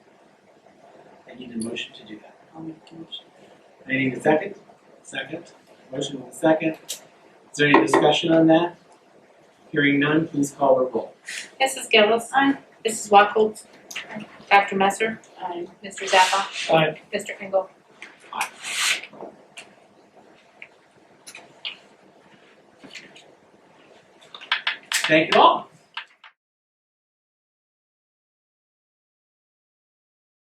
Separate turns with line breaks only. I need a motion to do that.
I'll make the motion.
I need a second? Second. Motion with a second. Is there any discussion on that? Hearing none, please call the roll.
Mrs. Gillis. Aye. Mrs. Wackel. Dr. Messer.
Aye.
Mr. Zappa.
Aye.
Mr. Engel.
Thank you all.